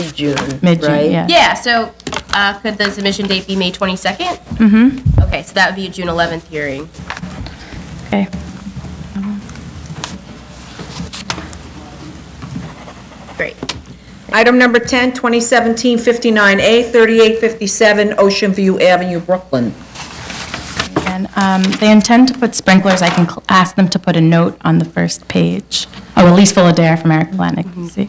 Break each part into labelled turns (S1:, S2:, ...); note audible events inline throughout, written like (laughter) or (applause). S1: mid-June, right?
S2: Mid-June, yeah.
S3: Yeah, so uh, could the submission date be May 22nd? Mm-hmm. Okay, so that would be a June 11th hearing.
S2: Okay.
S3: Great.
S1: Item number 10, 2017-59A, 3857 Ocean View Avenue, Brooklyn.
S2: And um, they intend to put sprinklers, I can cl- ask them to put a note on the first page. Oh, Elise Fullader from Eric Planick, you see.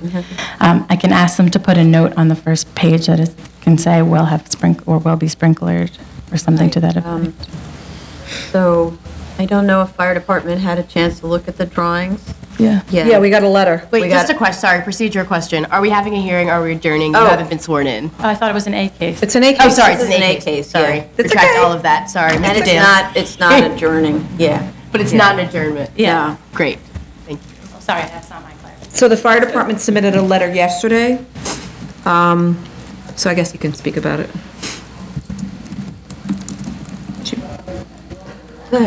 S2: Um, I can ask them to put a note on the first page that is, can say, will have sprink, or will be sprinklered, or something to that
S4: Um,
S2: effect.
S4: So I don't know if fire department had a chance to look at the drawings
S2: Yeah.
S4: yet.
S1: Yeah, we got a letter.
S4: We
S3: Wait,
S4: got-
S3: just a question, sorry, procedure question. Are we having a hearing, are we adjourning? You
S4: Oh.
S3: haven't been sworn in.
S2: I thought it was an A case.
S1: It's an AK.
S3: Oh, sorry, it's
S4: This
S3: an
S4: is an
S3: A
S4: A
S3: case,
S4: case,
S3: sorry.
S4: yeah.
S1: It's
S3: Retract
S1: okay.
S3: all of that, sorry.
S4: And
S3: Mr.
S4: it's
S3: Dale.
S4: not, it's not adjourning, yeah.
S3: But it's not an adjournment.
S2: Yeah.
S4: No.
S3: Great, thank you.
S2: Sorry, that's not my clarification.
S1: So the fire department submitted a letter yesterday, Um, so I guess you can speak about it.
S2: Go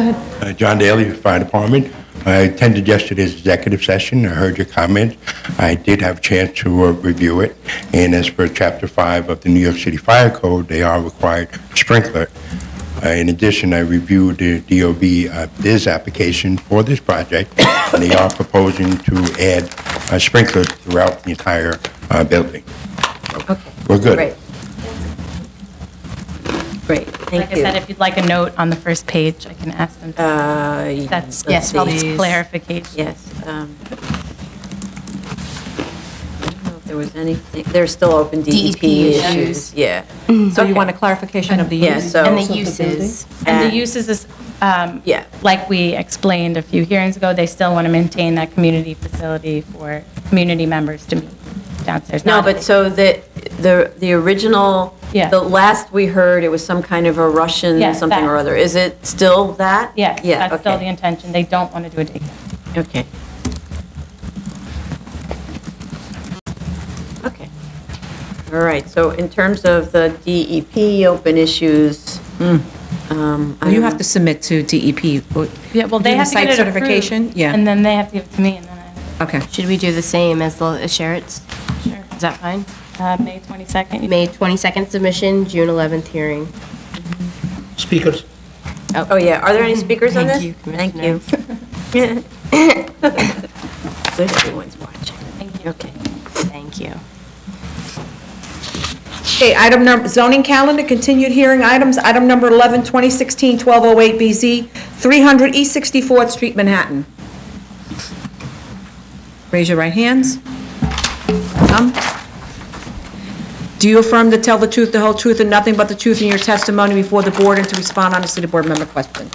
S2: ahead.
S5: Uh, John Daly, Fire Department. I attended yesterday's executive session. I heard your comments. I did have a chance to uh, review it. And as per Chapter 5 of the New York City Fire Code, they are required to sprinkler. Uh, in addition, I reviewed the DOB uh, biz application for this project, and they are proposing to add uh, sprinklers throughout the entire uh, building. So, We're good.
S4: Great. Great,
S2: Like
S4: thank
S2: I
S4: you.
S2: said, if you'd like a note on the first page, I can ask them. to-
S4: Uh,
S2: That's
S4: let's
S2: that's probably
S4: see.
S2: clarification.
S4: Yes. um, I don't know if There was anything, there's still open DEP
S2: E
S3: DEP issues.
S4: issues, yeah.
S2: Mm-hmm.
S6: So you want a clarification of the
S4: Yeah,
S6: use?
S4: so.
S3: And the uses.
S2: And
S4: and-
S2: the uses is, um,
S4: Yeah.
S2: like we explained a few hearings ago, they still want to maintain that community facility for community members to meet downstairs.
S4: No,
S2: not
S4: but
S2: a-
S4: so the, the, the original,
S2: Yeah.
S4: the last we heard, it was some kind of a Russian
S2: Yes,
S4: something
S2: that.
S4: or other. Is it still that?
S2: Yes,
S4: Yeah,
S2: that's still the
S4: okay.
S2: intention. They don't want to do a daycare.
S4: Okay. Okay. All right, so in terms of the DEP open issues, um, I
S6: Mm. You
S4: don't
S6: have to
S4: know.
S6: submit to
S1: E
S6: DEP.
S2: Yeah, well, they
S6: Do the
S2: have to
S6: site
S2: get it approved.
S6: certification?
S2: And
S6: Yeah,
S2: then they have to give it to me, and then I,
S6: okay.
S3: Should we do the same as the as Sherritt's?
S2: sure.
S3: Is that fine?
S2: Uh, May 22nd. you-
S3: May 22nd submission, June 11th hearing.
S7: Speakers.
S4: Oh, yeah, are there
S6: Mm-hmm.
S4: any speakers on
S3: Thank
S4: this?
S3: you,
S4: Thank you. (laughs) Good, everyone's watching.
S2: Thank you.
S4: Okay.
S3: Thank you.
S1: Okay, item number, zoning calendar, continued hearing items, item number 11, 2016-1208BZ, 300 East 64th Street, Manhattan. Raise your right hands. Some. Do you affirm to tell the truth, the whole truth, and nothing but the truth in your testimony before the board and to respond honestly to board member questions?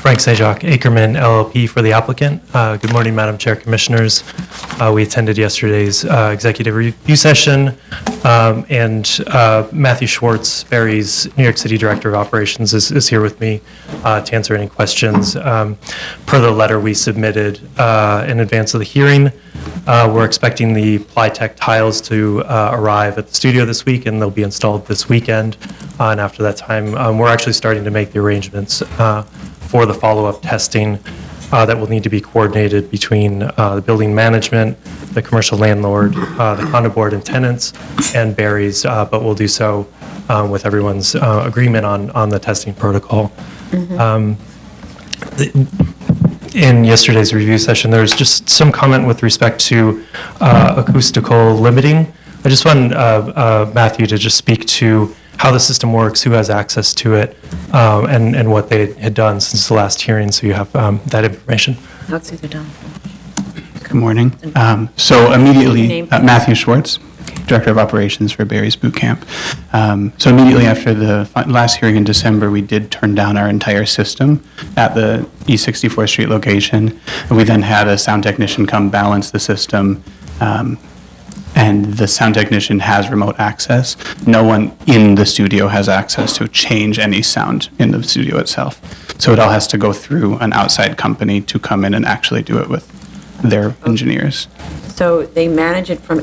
S8: Frank Sajak, Ackerman LLP for the applicant. Uh, Good morning, Madam Chair, Commissioners. Uh, We attended yesterday's uh, executive review session, um, and uh, Matthew Schwartz, Barry's New York City Director of Operations, is is here with me uh, to answer any questions. Um, Per the letter we submitted uh, in advance of the hearing, uh, we're expecting the Plytech tiles to uh, arrive at the studio this week, and they'll be installed this weekend. Uh, And after that time, um, we're actually starting to make the arrangements uh, for the follow-up testing uh, that will need to be coordinated between uh, the building management, the commercial landlord, uh, the condo board and tenants, and Barry's, uh, but we'll do so uh, with everyone's uh, agreement on, on the testing protocol in yesterday's review session, there was just some comment with respect to uh, acoustical limiting. I just want uh, uh, Matthew to just speak to how the system works, who has access to it, um, and, and what they had done since the last hearing, so you have um, that information.
S9: Good morning. Um, So immediately,
S4: Name.
S9: uh, Matthew Schwartz, Director of Operations for Barry's Boot Camp. Um, So immediately after the fi- last hearing in December, we did turn down our entire system at the East 64th Street location. We then had a sound technician come balance the system, um, and the sound technician has remote access. No one in the studio has access to change any sound in the studio itself. So it all has to go through an outside company to come in and actually do it with their engineers.
S4: So they manage it from